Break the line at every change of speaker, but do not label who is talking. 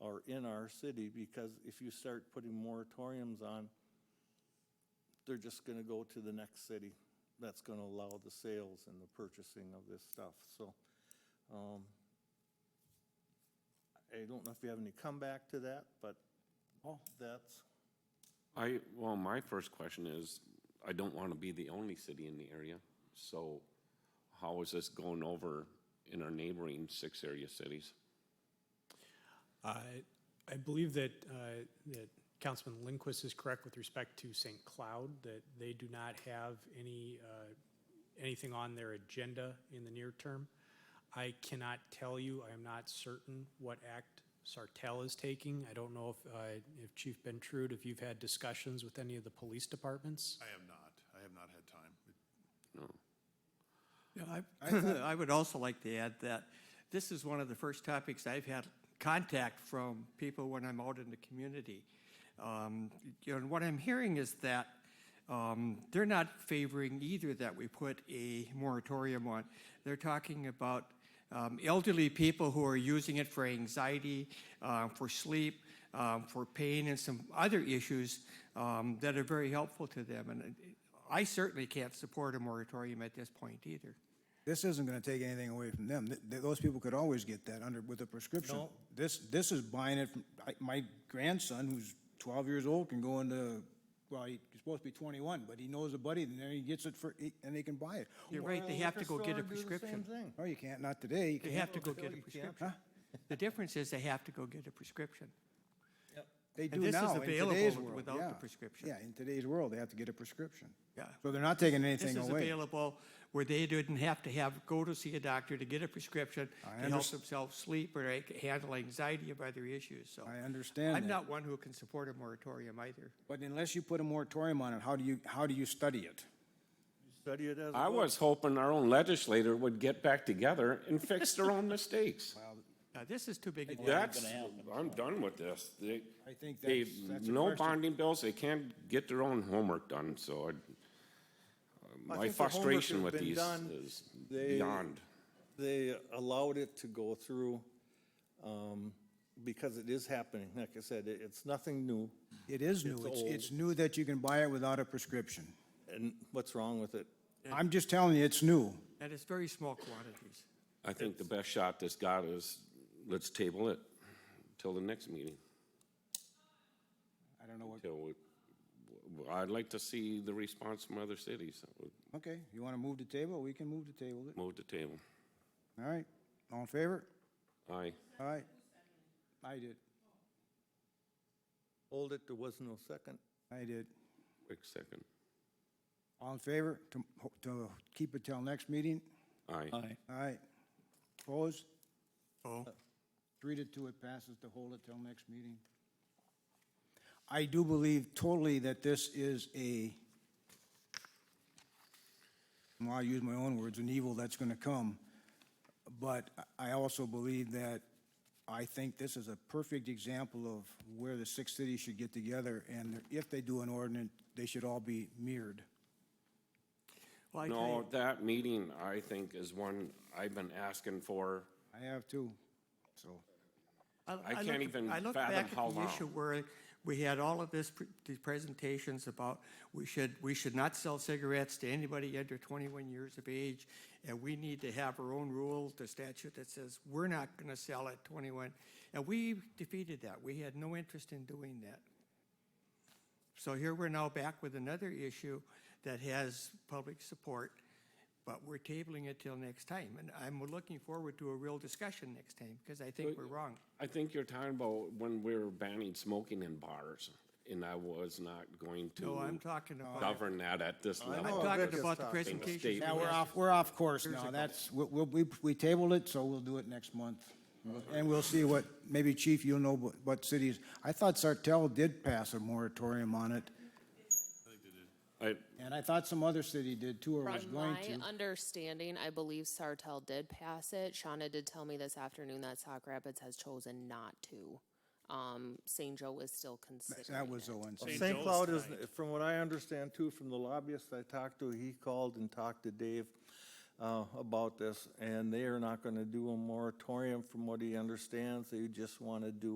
are in our city, because if you start putting moratoriums on, they're just gonna go to the next city that's gonna allow the sales and the purchasing of this stuff, so. um, I don't know if you have any comeback to that, but Oh. that's,
I, well, my first question is, I don't want to be the only city in the area, so how is this going over in our neighboring six area cities?
I Uh, I believe that, uh, that Councilman Lindquist is correct with respect to St. Cloud, that they do not have any, uh, anything on their agenda in the near term. I cannot tell you, I am not certain what act Sartell is taking. I don't know if, uh, if Chief Bentrude, if you've had discussions with any of the police departments?
I have not. I have not had time.
No.
Yeah, I, I would also like to add that this is one of the first topics I've had contact from people when I'm out in the community. Um, you know, and what I'm hearing is that um, they're not favoring either that we put a moratorium on. They're talking about um, elderly people who are using it for anxiety, uh, for sleep, um, for pain, and some other issues um, that are very helpful to them. And uh, I certainly can't support a moratorium at this point either.
This isn't going to take anything away from them. Th- th- Those people could always get that under, with a prescription.
No.
This, this is buying it from, I- my grandson, who's 12 years old, can go into, well, he's supposed to be 21, but he knows a buddy, and then he gets it for, he- and they can buy it.
You're right, they have to go get a prescription.
No, you can't, not today. You
They
can't.
have to go get a prescription. The difference is they have to go get a prescription.
They
And
do
this is
now, in
available
today's
with-
world,
without the
yeah.
prescription.
Yeah, in today's world, they have to get a prescription.
Yeah.
So they're not taking
This
anything
is
away.
available where they didn't have to have, go to see a doctor to get a prescription to
I
help
underst-
themselves sleep or ac- handle anxiety of other issues, so.
I understand
I'm
that.
not one who can support a moratorium either.
But unless you put a moratorium on it, how do you, how do you study it?
study it as. a
I
book.
was hoping our own legislator would get back together and fix their own mistakes.
Now, this is too big. a deal.
That's, I'm done with this. They,
I think
they,
that's, that's a
no
question.
bonding bills, they can't get their own homework done,
I
so I, my
think the homework
frustration
has
with
been
these
done.
is
They-
beyond.
They allowed it to go through, um, because it is happening. Like I said, it, it's nothing new.
It is
It's
new. It's,
old.
it's new that you can buy it without a prescription.
And what's wrong with it?
I'm just telling you, it's new.
And it's very small quantities.
I think the best shot this got is, let's table it till the next meeting,
I don't know what,
till we, w- I'd like to see the response from other cities,
okay, you want to move the table? We can move the table. it.
move the table.
All right, all in favor?
Aye.
All right. I did,
Hold it, there was no second.
I did.
Quick second.
All in favor to, to keep it till next meeting?
Uh,
Aye.
All right. Opposed?
Oh.
Three to two, it passes to hold it till next meeting. I do believe totally that this is a, well, I'll use my own words, an evil that's going to come. But I also believe that, I think this is a perfect example of where the six cities should get together, and if they do an ordinance, they should all be mirrored.
Well, I tell
No,
you,
that meeting, I think, is one I've been asking for.
I have too, so.
I can't
look-
even
I look
fathom
back at
how
the
long.
issue Where we had all of this, pre- these presentations about we should, we should not sell cigarettes to anybody under 21 years of age, and we need to have our own rule, the statute that says we're not going to sell at 21. And we defeated that. We had no interest in doing that. So here we're now back with another issue that has public support, but we're tabling it till next time. And I'm looking forward to a real discussion next time, because I think we're wrong.
I think you're talking about when we were banning smoking in bars, and I was not going to
No, I'm talking about.
govern that at this
I
level.
know
I'm
Rick
talking
is
about the
talking.
presentation.
Yeah,
Yeah, we're off, we're off course now. That's, we, we, we tabled it, so we'll do it next month. And we'll see what, maybe Chief, you'll know what, what cities. I thought Sartell did pass a moratorium on it,
I,
and I thought some other city did too, or was
From
going
my
to.
understanding, I believe Sartell did pass it. Shauna did tell me this afternoon that Sauk Rapids has chosen not to. Um, St. Joe is still considering
That was
it.
the one.
St.
St.
Joe's
Cloud is,
tonight.
from what I understand too, from the lobbyist I talked to, he called and talked to Dave uh, about this, and they are not going to do a moratorium from what he understands. They just want to do